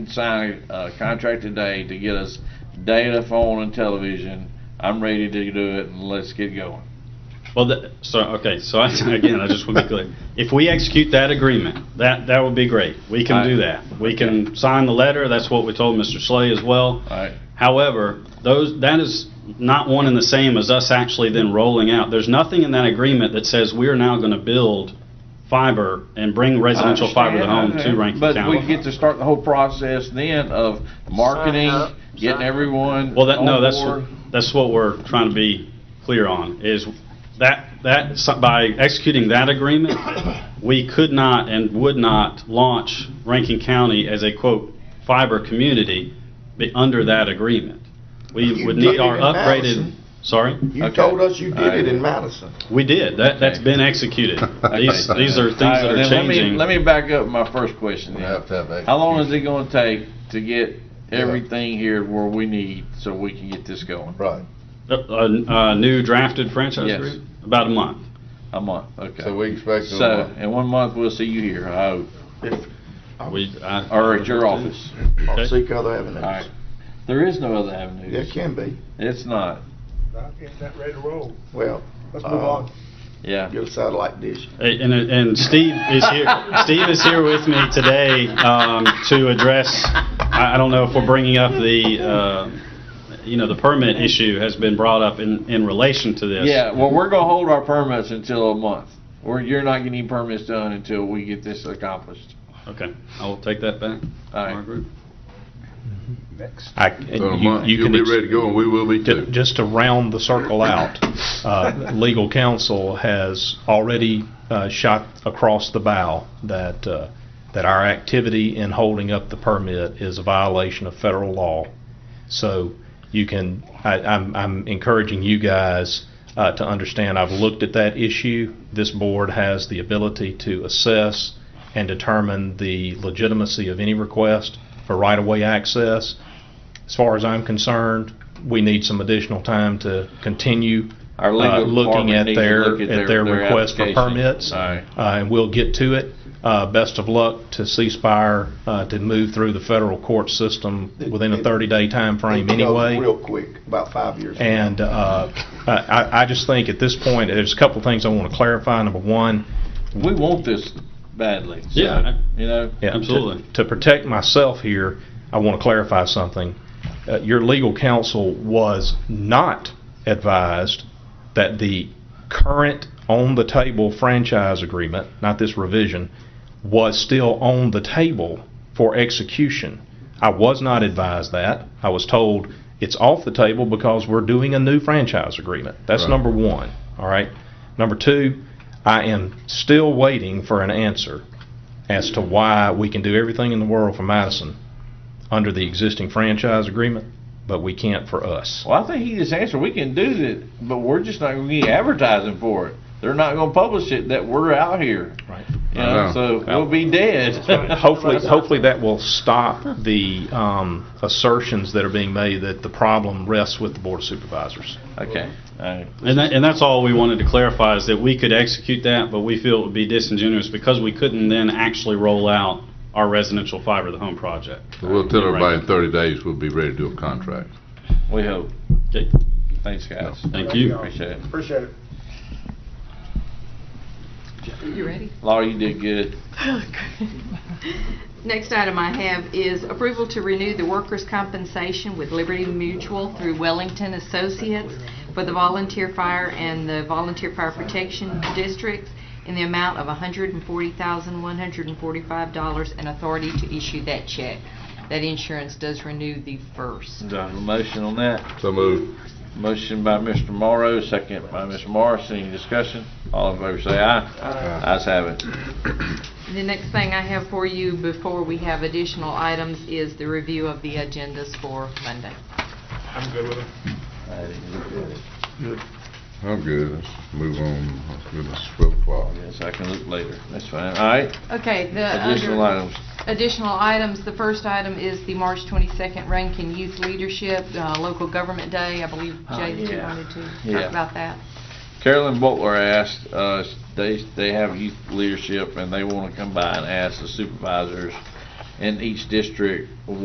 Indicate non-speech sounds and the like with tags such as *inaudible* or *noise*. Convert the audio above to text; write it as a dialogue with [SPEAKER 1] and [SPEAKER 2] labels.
[SPEAKER 1] sign a contract today to get us data, phone, and television. I'm ready to do it, and let's get going.
[SPEAKER 2] Well, that, so, okay, so I, *laughs* again, I just want to be clear. If we execute that agreement, that, that would be great. We can do that. We can sign the letter, that's what we told Mr. Slay as well.
[SPEAKER 1] Alright.
[SPEAKER 2] However, those, that is not one and the same as us actually then rolling out. There's nothing in that agreement that says we're now going to build fiber and bring residential fiber to home to Rankin
[SPEAKER 1] But we
[SPEAKER 2] County.
[SPEAKER 1] get to start the whole process then of marketing,
[SPEAKER 3] up,
[SPEAKER 1] getting
[SPEAKER 3] sign up.
[SPEAKER 1] everyone
[SPEAKER 2] Well, that, no,
[SPEAKER 1] on
[SPEAKER 2] that's,
[SPEAKER 1] board.
[SPEAKER 2] that's what we're trying to be clear on, is that, that, so- by executing that agreement, we could not and would not launch Rankin County as a quote fiber community be- under that agreement. We
[SPEAKER 3] You
[SPEAKER 2] would
[SPEAKER 3] did
[SPEAKER 2] need
[SPEAKER 3] it
[SPEAKER 2] our
[SPEAKER 3] in
[SPEAKER 2] upgraded,
[SPEAKER 3] Madison.
[SPEAKER 2] sorry?
[SPEAKER 3] You
[SPEAKER 1] Okay.
[SPEAKER 3] told us you did it in Madison.
[SPEAKER 2] We did, that, that's been executed. These,
[SPEAKER 1] Okay.
[SPEAKER 2] these are things
[SPEAKER 1] Alright,
[SPEAKER 2] that are
[SPEAKER 1] then let me-
[SPEAKER 2] changing.
[SPEAKER 1] Let me back up my first question then.
[SPEAKER 4] We have to have
[SPEAKER 1] How long is it gonna take to get everything here where we need, so we can get this going?
[SPEAKER 4] Right,
[SPEAKER 2] A, a- a new drafted franchise
[SPEAKER 1] Yes.
[SPEAKER 2] agreement, about a month.
[SPEAKER 1] A month, okay.
[SPEAKER 4] so we expect it in a
[SPEAKER 1] So,
[SPEAKER 4] month.
[SPEAKER 1] in one month, we'll see you here, I hope,
[SPEAKER 2] We, I.
[SPEAKER 1] or at your office.
[SPEAKER 3] Or
[SPEAKER 2] Okay.
[SPEAKER 3] seek other
[SPEAKER 1] Alright.
[SPEAKER 3] avenues.
[SPEAKER 1] There is no other avenue.
[SPEAKER 3] There can be.
[SPEAKER 1] It's not,
[SPEAKER 5] Isn't that ready to roll?
[SPEAKER 3] Well,
[SPEAKER 5] Let's move
[SPEAKER 3] uh,
[SPEAKER 5] on.
[SPEAKER 1] yeah.
[SPEAKER 3] get a satellite dish.
[SPEAKER 2] Hey, Uh, And, and Steve is here, Steve is here with me today um, to address, I I don't know if we're bringing up the, uh, you know, the permit issue has been brought up in, in relation to this.
[SPEAKER 1] Yeah, well, we're gonna hold our permits until a month. We're, you're not getting permits done until we get this accomplished.
[SPEAKER 2] Okay, I will take that back.
[SPEAKER 1] All right.
[SPEAKER 2] Margaret.
[SPEAKER 6] I,
[SPEAKER 4] So in a
[SPEAKER 6] you-
[SPEAKER 4] month,
[SPEAKER 6] you
[SPEAKER 4] you'll
[SPEAKER 6] can,
[SPEAKER 4] be
[SPEAKER 6] ex-
[SPEAKER 4] ready to go, and we will be
[SPEAKER 6] ju-
[SPEAKER 4] too.
[SPEAKER 6] just to round the circle out, uh, legal counsel has already uh, shot across the bow that, uh, that our activity in holding up the permit is a violation of federal law. So you can, I, I'm, I'm encouraging you guys uh, to understand, I've looked at that issue. This board has the ability to assess and determine the legitimacy of any request for right-of-way access. As far as I'm concerned, we need some additional time to continue
[SPEAKER 1] Our
[SPEAKER 6] uh,
[SPEAKER 1] legal
[SPEAKER 6] looking
[SPEAKER 1] department
[SPEAKER 6] at
[SPEAKER 1] needs to
[SPEAKER 6] their,
[SPEAKER 1] look at
[SPEAKER 6] at
[SPEAKER 1] their-
[SPEAKER 6] their
[SPEAKER 1] their
[SPEAKER 6] request for
[SPEAKER 1] application.
[SPEAKER 6] permits.
[SPEAKER 1] Alright.
[SPEAKER 6] Uh, And we'll get to it. Uh, Best of luck to ceasefire, uh, to move through the federal court system within a 30-day timeframe
[SPEAKER 3] It goes
[SPEAKER 6] anyway.
[SPEAKER 3] Real quick, about five years.
[SPEAKER 6] And uh, I I just think at this point, there's a couple things I want to clarify. Number one,
[SPEAKER 1] We want this badly, so,
[SPEAKER 2] Yeah.
[SPEAKER 1] you know?
[SPEAKER 6] yeah, to-
[SPEAKER 2] Absolutely.
[SPEAKER 6] To protect myself here, I want to clarify something. Uh, Your legal counsel was not advised that the current on-the-table franchise agreement, not this revision, was still on the table for execution. I was not advised that. I was told it's off the table because we're doing a new franchise agreement. That's number one, all right? Number two, I am still waiting for an answer as to why we can do everything in the world for Madison under the existing franchise agreement, but we can't
[SPEAKER 1] *laughs*
[SPEAKER 6] for us.
[SPEAKER 1] Well, I think he just answered, we can do it, but we're just not gonna get advertising for it. They're not gonna publish it that we're out here,
[SPEAKER 6] Right.
[SPEAKER 1] you know, so
[SPEAKER 4] know.
[SPEAKER 1] we'll be dead. *laughs*
[SPEAKER 6] Hopefully, hopefully that will stop the um, assertions that are being made that the problem rests with the Board of Supervisors.
[SPEAKER 1] Okay, alright.
[SPEAKER 2] And that, and that's all we wanted to clarify is that we could execute that, but we feel it would be disingenuous because we couldn't then actually roll out our residential fiber to the home project.
[SPEAKER 4] We'll tell everybody in thirty days, we'll be ready to do a contract.
[SPEAKER 1] We hope.
[SPEAKER 2] Okay,
[SPEAKER 1] Thanks, guys.
[SPEAKER 2] Thank you.
[SPEAKER 1] Appreciate it.
[SPEAKER 5] Appreciate it.
[SPEAKER 7] You ready?
[SPEAKER 1] Laura, you did good.
[SPEAKER 7] Next item I have is approval to renew the workers' compensation with Liberty Mutual through Wellington Associates for the volunteer fire and the volunteer fire protection districts in the amount of $140,145 and authority to issue that check. That insurance does renew the first.
[SPEAKER 1] Do I have a motion on that?
[SPEAKER 4] So move.
[SPEAKER 1] Motion by Mr. Morrow, second by Mr. Morris. Any discussion? All in favor say aye. Aye. Ayes have it.
[SPEAKER 7] The next thing I have for you before we have additional items is the review of the agendas for Monday.
[SPEAKER 5] I'm good with it.
[SPEAKER 4] I'm good, let's move on, let's do this swift walk.
[SPEAKER 1] Yes, I can look later. That's fine. All right.
[SPEAKER 7] Okay, the. under-
[SPEAKER 1] Additional items.
[SPEAKER 7] additional items. The first item is the March 22nd Rankin Youth Leadership uh, Local Government Day. I believe
[SPEAKER 1] Oh,
[SPEAKER 7] Jay, that you
[SPEAKER 1] yeah.
[SPEAKER 7] wanted to
[SPEAKER 1] Yeah.
[SPEAKER 7] talk about that.
[SPEAKER 1] Carolyn Butler asked, uh, they, they have youth leadership and they want to come by and ask the supervisors in each district